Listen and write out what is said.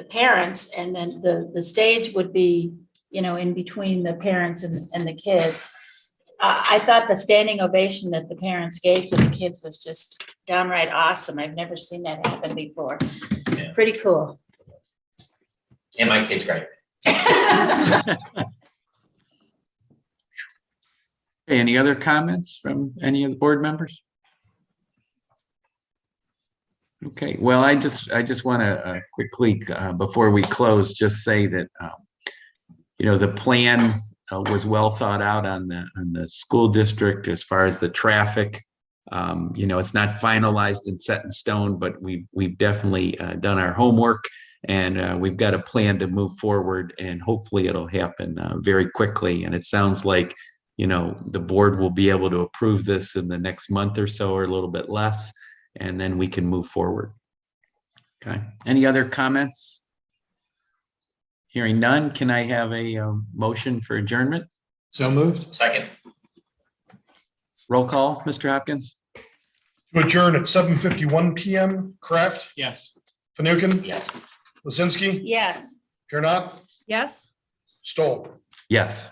the parents and then the, the stage would be, you know, in between the parents and, and the kids. I, I thought the standing ovation that the parents gave to the kids was just downright awesome. I've never seen that happen before. Yeah. Pretty cool. And my kid's great. Hey, Any other comments from any of the board members? Okay, well, I just, I just want to quickly, uh, before we close, just say that, um, you know, the plan uh, was well thought out on the, on the school district as far as the traffic. Um, You know, it's not finalized and set in stone, but we, we've definitely uh, done our homework. And uh, we've got a plan to move forward and hopefully it'll happen uh, very quickly. And it sounds like you know, the board will be able to approve this in the next month or so or a little bit less, and then we can move forward. Okay, any other comments? Hearing none, can I have a um, motion for adjournment? So moved. Second, Roll call, Mr. Hopkins? To adjourn at seven fifty-one PM, Kraft, Yes. Fanukin, yes. Lizinski, Yes. Kieran, Yes? Stoll. Yes.